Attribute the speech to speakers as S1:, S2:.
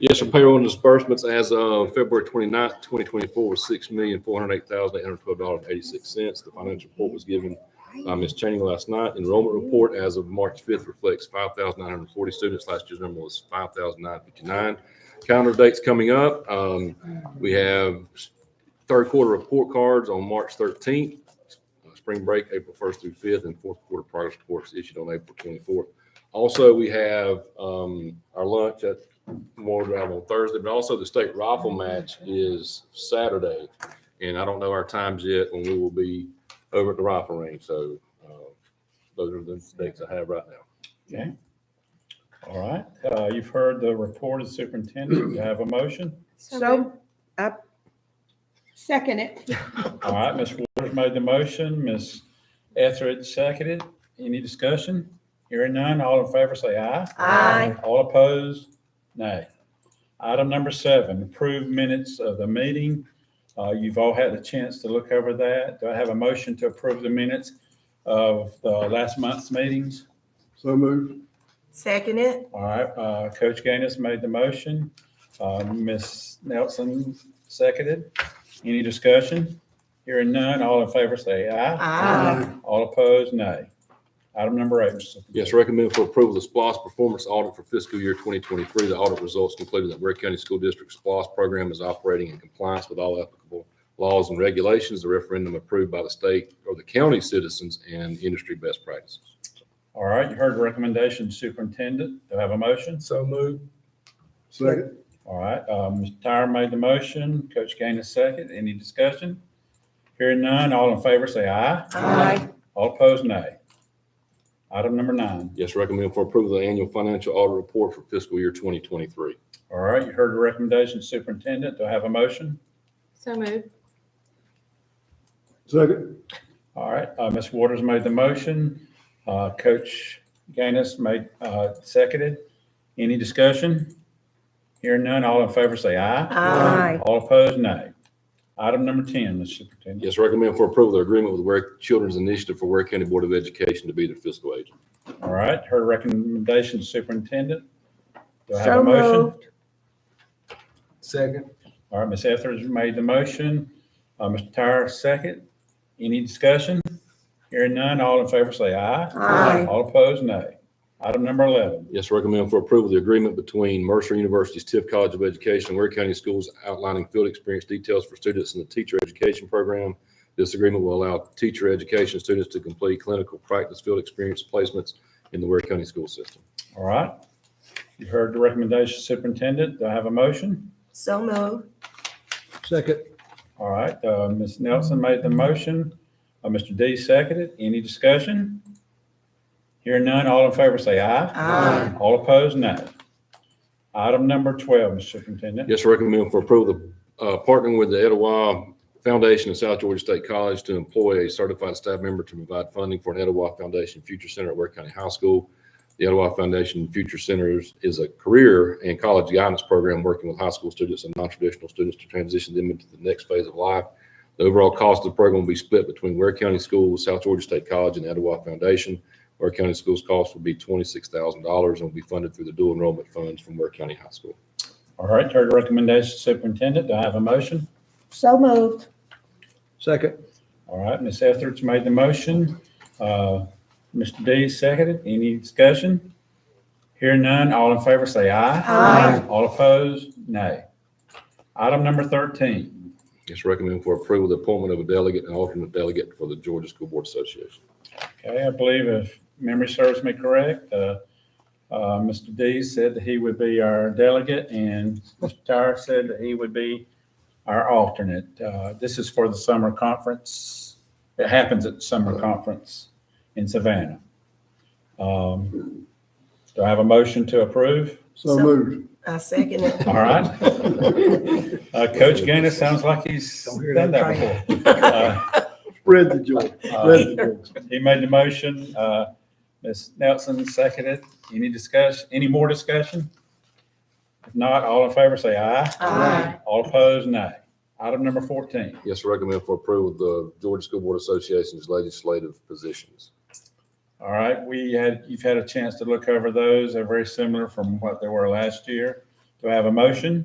S1: Yes, sir. Payroll and disbursements as of February 29th, twenty-four was six million, four hundred eight thousand, eight hundred twelve dollars, eighty-six cents. The financial report was given by Ms. Channing last night. Enrollment report as of March fifth reflects five thousand nine hundred forty students. Last year's number was five thousand nine fifty-nine. Calendar dates coming up. Um, we have third quarter report cards on March thirteenth, uh, spring break, April first through fifth, and fourth quarter progress reports issued on April twenty-fourth. Also, we have, um, our lunch at Memorial Drive on Thursday, but also the state rifle match is Saturday. And I don't know our times yet when we will be over at the rifle range. So uh, those are the dates I have right now.
S2: Okay. All right, uh, you've heard the report of the superintendent. Do you have a motion?
S3: So,
S4: So,
S3: up,
S4: second it.
S2: All right, Ms. Waters made the motion, Ms. Etheridge seconded. Any discussion? Hearing none, all in favor say aye.
S3: Aye.
S2: All opposed, nay. Item number seven, approved minutes of the meeting. Uh, You've all had a chance to look over that. Do I have a motion to approve the minutes of the last month's meetings?
S5: So moved.
S3: second it,
S2: All right, uh, Coach Gaines made the motion. Uh, Ms. Nelson seconded. Any discussion? Hearing none, all in favor say aye.
S3: Aye.
S2: All opposed, nay. Item number eight. Mr.
S1: Yes, recommend for approval, the SPOS performance audit for fiscal year 2023. The audit results concluded that Ware County School District's SPOS program is operating in compliance with all applicable laws and regulations, the referendum approved by the state or the county citizens and industry best practices.
S2: All right, you heard the recommendation, superintendent. Do I have a motion?
S5: So moved. Second.
S2: All right, um, Mr. Tyra made the motion, Coach Gaines second. Any discussion? Hearing none, all in favor say aye.
S3: Aye.
S2: All opposed, nay. Item number nine.
S1: Yes, recommend for approval, the annual financial audit report for fiscal year 2023.
S2: All right, you heard the recommendation, superintendent. Do I have a motion?
S4: So moved.
S5: Second.
S2: All right, uh, Ms. Waters made the motion. Uh, Coach Gaines made, uh, seconded. Any discussion? Hearing none, all in favor say aye.
S3: Aye.
S2: All opposed, nay. Item number 10, Mr. Superintendent.
S1: Yes, recommend for approval, the agreement with Ware Children's Initiative for Ware County Board of Education to be the fiscal agent.
S2: All right, her recommendation, superintendent. Do I have a
S3: So
S2: motion?
S3: moved.
S5: Second.
S2: All right, Ms. Etheridge made the motion. Uh, Mr. Tyra, second. Any discussion? Hearing none, all in favor say aye.
S3: Aye.
S2: All opposed, nay. Item number 11.
S1: Yes, recommend for approval, the agreement between Mercer University's Tiff College of Education and Ware County Schools outlining field experience details for students in the teacher education program. This agreement will allow teacher education students to complete clinical practice field experience placements in the Ware County school system.
S2: All right. You heard the recommendation, Superintendent. Do I have a motion?
S3: so moved,
S5: Second.
S2: All right, uh, Ms. Nelson made the motion. Uh, Mr. D seconded. Any discussion? Hearing none, all in favor say aye.
S3: Aye.
S2: All opposed, no. Item number 12, Mr. Superintendent.
S1: Yes, recommend for approval, the, uh, partnering with the Etowah Foundation and South Georgia State College to employ a certified staff member to provide funding for an Etowah Foundation Future Center at Ware County High School. The Etowah Foundation Future Centers is a career and college guidance program working with high school students and non-traditional students to transition them into the next phase of life. The overall cost of the program will be split between Ware County Schools, South Georgia State College, and Etowah Foundation. Ware County Schools' cost will be twenty-six thousand dollars and will be funded through the dual enrollment funds from Ware County High School.
S2: All right, heard the recommendation, Superintendent. Do I have a motion?
S4: So moved.
S5: Second.
S2: All right, Ms. Etheridge made the motion. Uh, Mr. D seconded. Any discussion? Hearing none, all in favor say aye.
S3: Aye.
S2: All opposed, nay. Item number 13.
S1: It's recommended for approval, the appointment of a delegate and alternate delegate for the Georgia School Board Association.
S2: Okay, I believe if memory serves me correct, uh, uh, Mr. D said that he would be our delegate and Mr. Tyra said that he would be our alternate. Uh, This is for the summer conference. It happens at the summer conference in Savannah. Um, Do I have a motion to approve?
S5: So moved.
S3: I second it.
S2: All right. Uh, Coach Gaines sounds like he's
S5: Don't hear
S2: done
S5: that
S2: that before. Uh,
S5: Spread the joy. Spread the joy.
S2: He made the motion, uh, Ms. Nelson seconded. Any discuss, any more discussion? If not, all in favor say aye.
S3: Aye.
S2: All opposed, nay. Item number fourteen.
S1: Yes, recommend for approval, the Georgia School Board Association's legislative positions.
S2: All right, we had, you've had a chance to look over those. They're very similar from what they were last year. Do I have a motion?